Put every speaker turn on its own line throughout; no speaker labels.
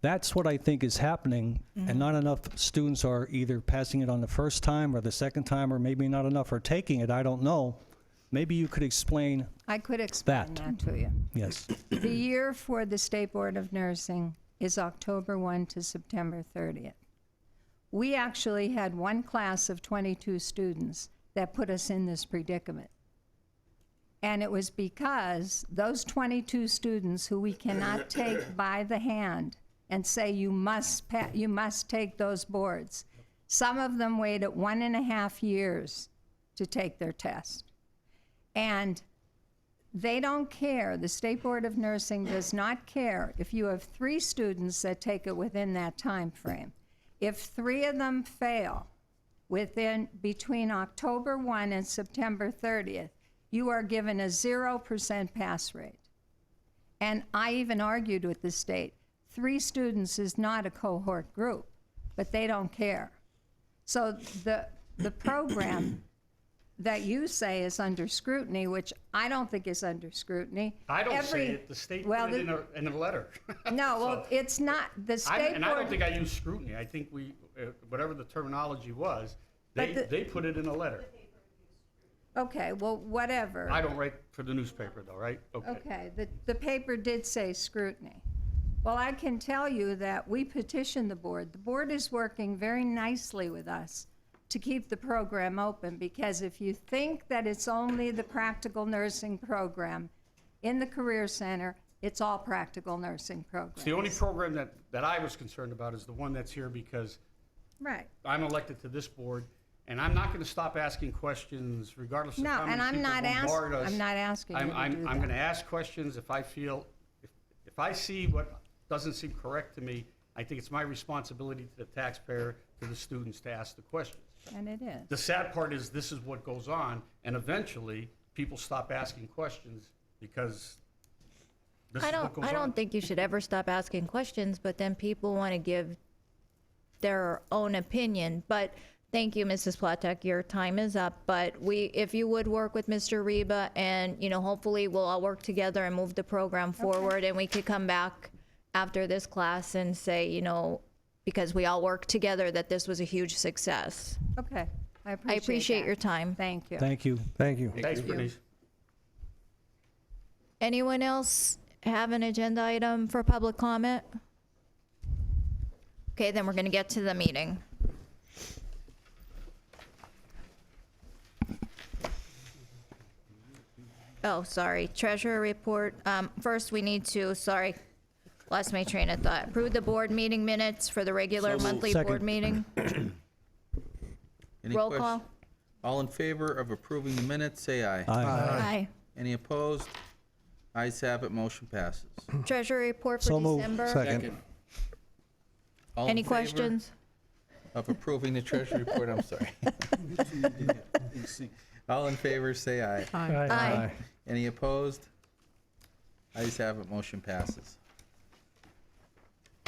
That's what I think is happening, and not enough students are either passing it on the first time or the second time, or maybe not enough are taking it, I don't know. Maybe you could explain,
I could explain
That.
that to you.
yes,
The year for the State Board of Nursing is October 1 to September 30th. We actually had one class of 22 students that put us in this predicament. And it was because those 22 students who we cannot take by the hand and say, you must, pa- you must take those boards. Some of them waited one and a half years to take their test. And they don't care, the State Board of Nursing does not care if you have three students that take it within that time frame. If three of them fail within, between October 1 and September 30th, you are given a 0% pass rate. And I even argued with the state, three students is not a cohort group, but they don't care. So the, the program that you say is under scrutiny, which I don't think is under scrutiny.
I don't
Every-
say it, the state
well,
put it in
the-
a, in a letter.
No, well,
So,
it's not, the
I-
state
And I don't
board,
think I used scrutiny, I think we, uh, whatever the terminology was,
But
they,
the-
they put it in a letter.
okay, well, whatever.
I don't write for the newspaper though, right?
Okay, the, the paper did say scrutiny. Well, I can tell you that we petitioned the board. The board is working very nicely with us to keep the program open, because if you think that it's only the practical nursing program in the Career Center, it's all practical nursing programs.
It's the only program that, that I was concerned about is the one that's here because
Right.
I'm elected to this board, and I'm not gonna stop asking questions regardless of
No,
how many
and I'm
people
not ask-
bombard us.
I'm not asking you
I'm,
to
I'm,
do
I'm
that.
gonna ask questions if I feel, if, if I see what doesn't seem correct to me, I think it's my responsibility to the taxpayer, to the students, to ask the questions.
And it is.
The sad part is this is what goes on, and eventually, people stop asking questions because this
I
is
don't.
what goes on.
I don't think you should ever stop asking questions, but then people want to give their own opinion. But thank you, Mrs. Platek. Your time is up. But we, if you would work with Mr. Reba, and you know, hopefully, we'll all work together and move the program forward, and we could come back after this class and say, you know, because we all worked together, that this was a huge success.
Okay, I appreciate
I appreciate
that.
your time.
Thank you.
thank you.
Thank you.
Thanks, Bernice.
Anyone else have an agenda item for public comment? Okay, then we're going to get to the meeting. Oh, sorry, treasurer report. Um, First, we need to, sorry, lost my train of thought. Approve the board meeting minutes for the regular monthly board
Second.
meeting.
Any
Roll
quest-
call.
All in favor of approving the minutes, say aye.
Aye.
Aye.
Any opposed? Ayes have it, motion passes.
Treasurer report for
So moved.
December.
Second.
All in
Any
favor
questions?
Of approving the treasury report, I'm sorry. All in favor, say aye.
Aye.
Any opposed? Ayes have it, motion passes.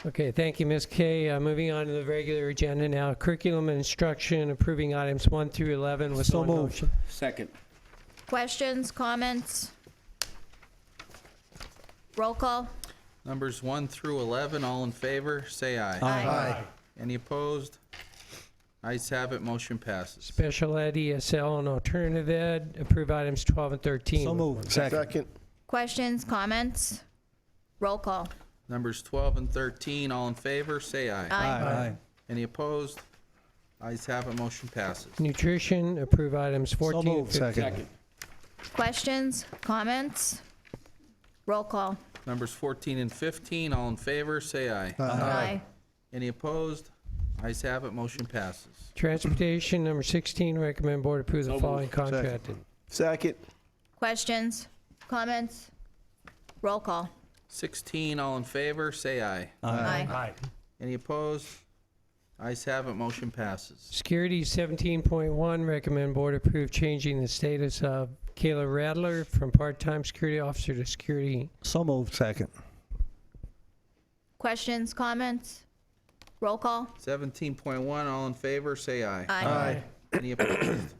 Okay, thank you, Ms. Kay. Uh, Moving on to the regular agenda now, curriculum and instruction, approving items 1 through 11 with
So
one
moved.
motion.
Second.
Questions, comments? Roll call.
Numbers 1 through 11, all in favor, say aye.
Aye.
Any opposed? Ayes have it, motion passes.
Special ed, ESL, and alternative ed, approve items 12 and 13.
So
with-
moved.
Second.
Questions, comments? Roll call.
Numbers 12 and 13, all in favor, say aye.
Aye.
Any opposed? Ayes have it, motion passes.
Nutrition, approve items 14 and
moved.
15.
Second.
Questions, comments? Roll call.
Numbers 14 and 15, all in favor, say aye.
Aye.
Any opposed? Ayes have it, motion passes.
Transportation, number 16, recommend board approve the following contract.
Second.
Questions, comments? Roll call.
16, all in favor, say aye.
Aye.
Aye.
Any opposed? Ayes have it, motion passes.
Security, 17.1, recommend board approve changing the status of Kayla Rattler from part-time security officer to security.
So moved.
Second.
Questions, comments? Roll call.
17.1, all in favor, say aye.
Aye.
Any opposed?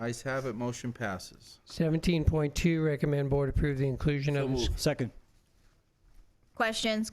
Ayes have it, motion passes.
17.2, recommend board approve the inclusion of the
Second.
Questions,